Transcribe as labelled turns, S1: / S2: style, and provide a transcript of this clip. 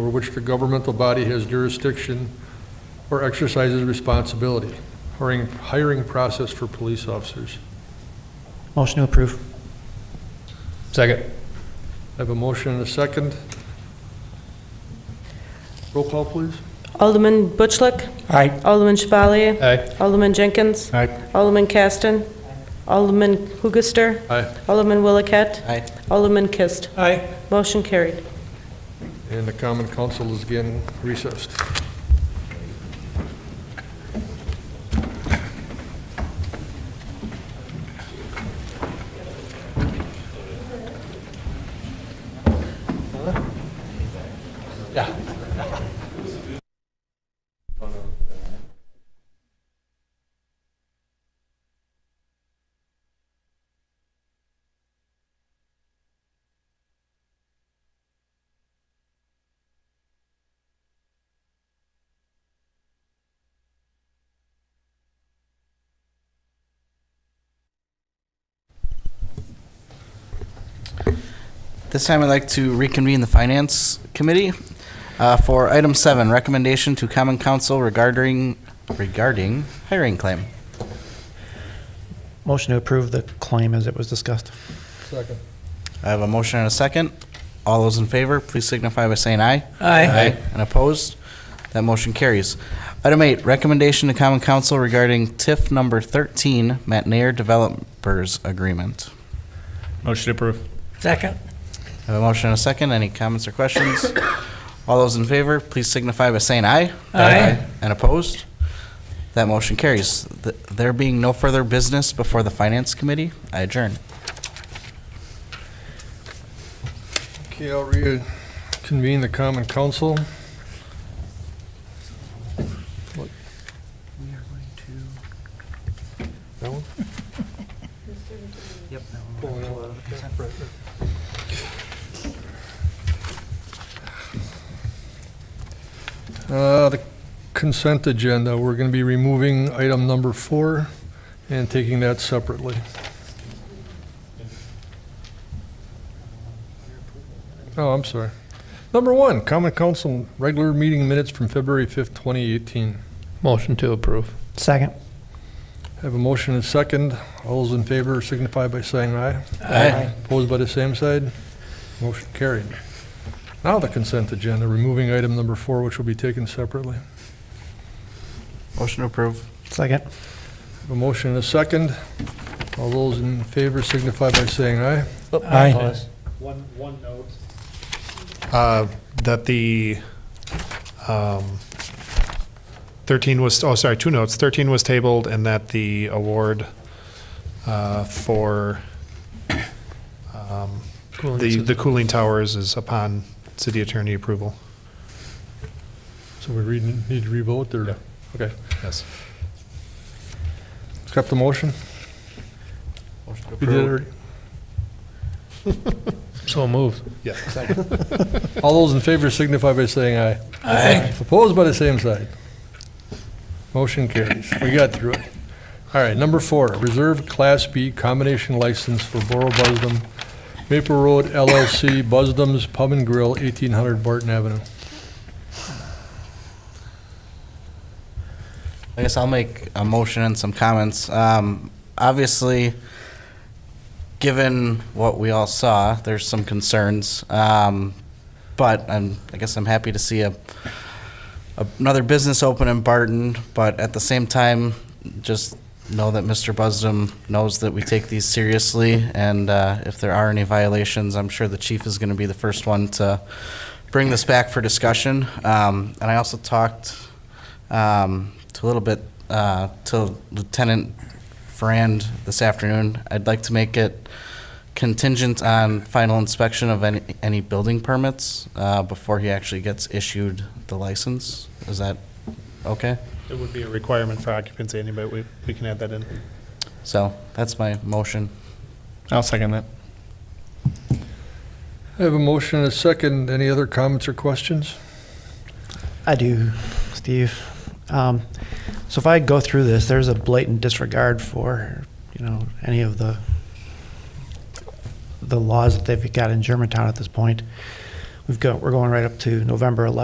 S1: which the governmental body has jurisdiction or exercises responsibility. Hiring, hiring process for police officers.
S2: Motion to approve.
S3: Second.
S1: I have a motion and a second. Roll call, please.
S4: Alderman Butchlick,
S2: Aye.
S4: Alderman Chevalier,
S3: Aye.
S4: Alderman Jenkins,
S3: Aye.
S4: Alderman Caston, Alderman Hoogaster,
S1: Aye.
S4: Alderman Williket,
S3: Aye.
S4: Alderman Kist.
S3: Aye.
S4: Motion carried.
S1: And the common council is again recessed.
S5: This time I'd like to reconvene the Finance Committee uh, for item seven, recommendation to Common Council regarding, regarding hiring claim.
S2: Motion to approve the claim as it was discussed.
S1: Second.
S5: I have a motion and a second. All those in favor, please signify by saying aye. And opposed? That motion carries. Item eight, recommendation to Common Council regarding TIF number 13, Matt Nair Developers Agreement.
S3: Motion to approve.
S6: Second.
S5: I have a motion and a second. Any comments or questions? All those in favor, please signify by saying aye.
S6: Aye.
S5: And opposed? That motion carries. Th- There being no further business before the Finance Committee, I adjourn.
S1: Okay, I'll reconvene the common council. What? That one? Pull it out. Right there. Uh, The consent agenda, we're going to be removing item number four and taking that separately. Oh, I'm sorry. Number one, common council regular meeting minutes from February 5th, 2018.
S3: Motion to approve.
S2: Second.
S1: Have a motion and second. All those in favor signify by saying aye.
S5: Aye.
S1: Opposed by the same side? Motion carried. Now the consent agenda, removing item number four, which will be taken separately.
S5: Motion to approve.
S2: Second.
S1: Have a motion and a second. All those in favor signify by saying aye.
S2: Aye.
S7: One, one note,
S6: Uh,
S7: that the, um, 13 was, oh, sorry, two notes. 13 was tabled and that the award uh, for um, the, the cooling towers is upon city attorney approval.
S1: So we read- need to revote or?
S7: Yeah.
S1: Okay.
S7: Yes.
S1: Accept the motion?
S5: Motion to
S1: You did it already?
S3: So moved.
S1: All those in favor signify by saying aye.
S6: Aye.
S1: Opposed by the same side. Motion carries. We got through it. All right, number four, reserve Class B combination license for Borough Busdom, Maple Road LLC, Busdom's Pub and Grill, 1800 Barton Avenue.
S5: I guess I'll make a motion and some comments. Um, obviously, given what we all saw, there's some concerns. Um, but I'm, I guess I'm happy to see a, another business open in Barton. But at the same time, just know that Mr. Busdom knows that we take these seriously. And uh, if there are any violations, I'm sure the chief is going to be the first one to bring this back for discussion. Um, and I also talked um, to a little bit uh, to Lieutenant Frand this afternoon. I'd like to make it contingent on final inspection of any, any building permits uh, before he actually gets issued the license. Is that okay?
S7: It would be a requirement for occupancy anyway, we, we can add that in.
S5: So that's my motion.
S3: I'll second that.
S1: I have a motion and a second. Any other comments or questions?
S2: I do, Steve. Um, So if I go through this, there's a blatant disregard for, you know, any of the, the laws that they've got in Germantown at this point. We've got, we're going right up to November 11th.